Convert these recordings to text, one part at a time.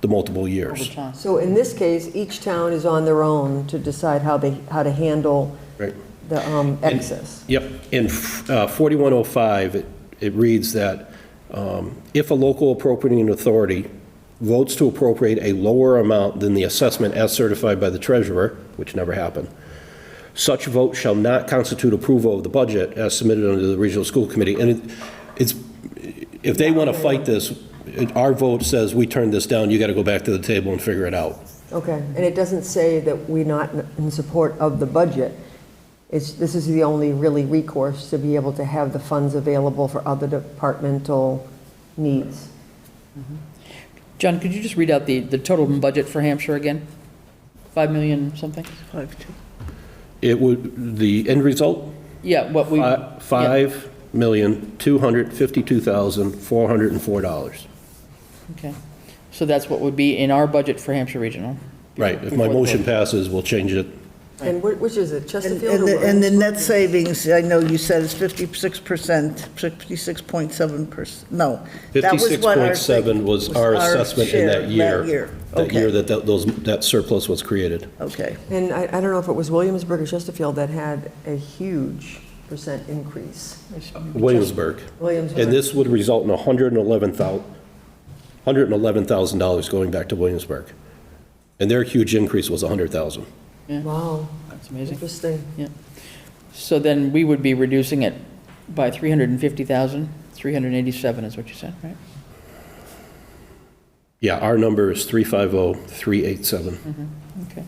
the multiple years. Overtime. So in this case, each town is on their own to decide how they, how to handle Right. the um, excess. Yep, in uh, 4105, it- it reads that um, if a local appropriating authority votes to appropriate a lower amount than the assessment as certified by the treasurer, which never happened, such vote shall not constitute approval of the budget as submitted under the regional school committee. And it- it's, if they want to fight this, it- our vote says we turn this down, you got to go back to the table and figure it out. Okay, and it doesn't say that we're not in support of the budget. It's, this is the only really recourse to be able to have the funds available for other departmental needs. John, could you just read out the, the total budget for Hampshire again? 5 million something? It would, the end result Yeah, what we. Five million, two hundred fifty-two thousand, four hundred and four dollars. yeah, Okay. So that's what would be in our budget for Hampshire Regional. Right, if my Before the motion vote. passes, we'll change it. And wh- which is it, And Chesterfield? and or the, and the Warren? net savings, I know you said is fifty-six percent, fifty-six point seven percent, no. that was Fifty-six what our point seven thing- was our assessment in share that year. That year, That year okay, that that- those, that surplus was created. okay. And I, I don't know if it was Williamsburg or Chesterfield that had a huge percent increase. Williamsburg. Williamsburg. And this would result in a hundred and eleven thou, hundred and eleven thousand dollars going back to Williamsburg. And their huge increase was a hundred thousand. Wow, That's amazing. interesting. So then we would be reducing it by 350,000, 387 is what you said, right? Yeah, our number is three five oh, three eight seven. Okay.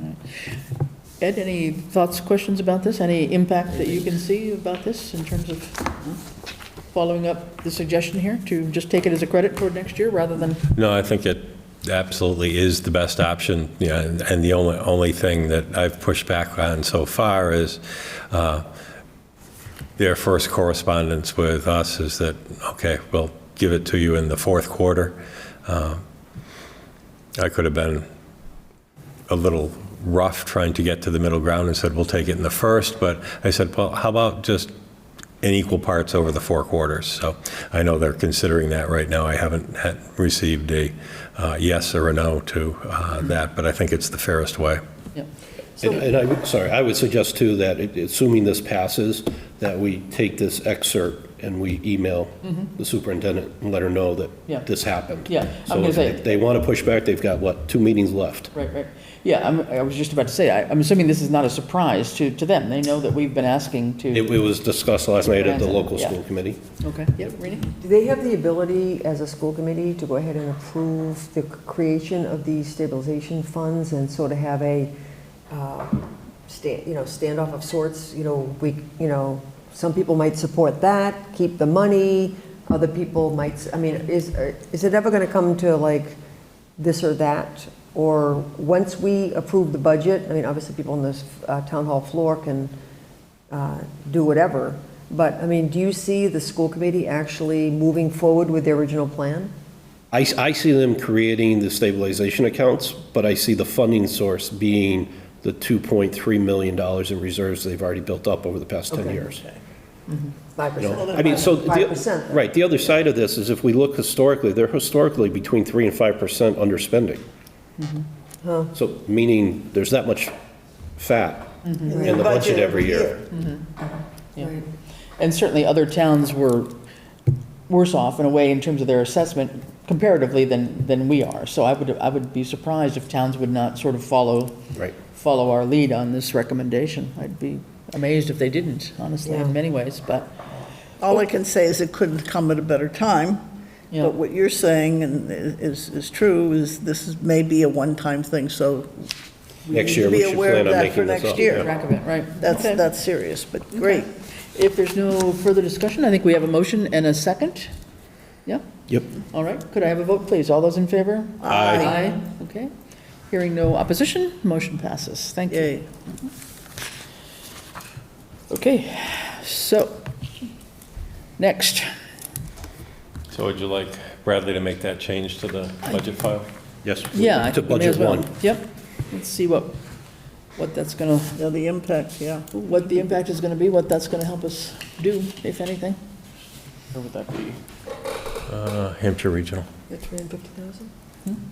All right. Ed, any thoughts, questions about this? Any impact that you can see about this in terms of hmm, following up the suggestion here to just take it as a credit toward next year rather than, No, I think it absolutely is the best option, yeah, and and the only, only thing that I've pushed back on so far is uh, their first correspondence with us is that, okay, we'll give it to you in the fourth quarter. Um, I could have been a little rough trying to get to the middle ground and said, we'll take it in the first, but I said, well, how about just in equal parts over the four quarters? So I know they're considering that right now. I haven't had, received a uh, yes or a no to uh, that, but I think it's the fairest way. yeah. And and I, would- sorry, I would suggest too that it- assuming this passes, that we take this excerpt and we email the superintendent and let her know Mm-hmm. Yeah. that this happened. Yeah, I'm So gonna if say- they- they want to push back, they've got, what, two meetings left? Right, right. Yeah, I'm, I was just about to say, I- I'm assuming this is not a surprise to, to them. They know that we've been asking It to. it was discussed last night at the Yeah. local school committee. Okay, yeah, Rini? Do they have the ability as a school committee to go ahead and approve the creation of these stabilization funds and sort of have a, uh, sta- you know, standoff of sorts? You know, we, you know, some people might support that, keep the money, other people might, s- I mean, is, are- is it ever going to come to like this or that? Or once we approve the budget, I mean, obviously people on this uh, town hall floor can uh, do whatever. But, I mean, do you see the school committee actually moving forward with their original plan? I, s- I see them creating the stabilization accounts, but I see the funding source being the $2.3 million in reserves they've already built up over the past 10 Okay. years. Five You percent? know, I mean, so, the- Five percent. right, the other side of this is if we look historically, they're historically between 3 and 5% underspending. Mm-hmm. So, meaning there's that much fat Mm-hmm. in the budget every year. Yeah. And certainly other towns were worse off in a way in terms of their assessment comparatively than, than we are. So I would, I would be surprised if towns would not sort of follow. Right. Follow our lead on this recommendation. I'd be amazed if they didn't, honestly, Yeah. in many ways, but, All I can say is it couldn't come at a better time, Yeah. but what you're saying and is, is true, is this is maybe a one-time thing, so Next need year, to we be should aware plan of on that making for this next up. year. yeah. track of it, right? that's, Okay. that's serious, but great. If there's no further discussion, I think we have a motion and a second. Yeah? Yep. All right, could I have a vote, please? All those in favor? Aye. Aye, okay. Hearing no opposition, motion passes. Thank you. Yay. Okay, so, next. So would you like Bradley to make that change to the budget file? Yes. Yeah. I To think we may as budget one. well. Yep, let's see what, what that's gonna, Yeah, the impact, yeah. what the impact is gonna be, what that's gonna help us do, if anything. Or would that be? Uh, Hampshire Regional. Three hundred and fifty thousand?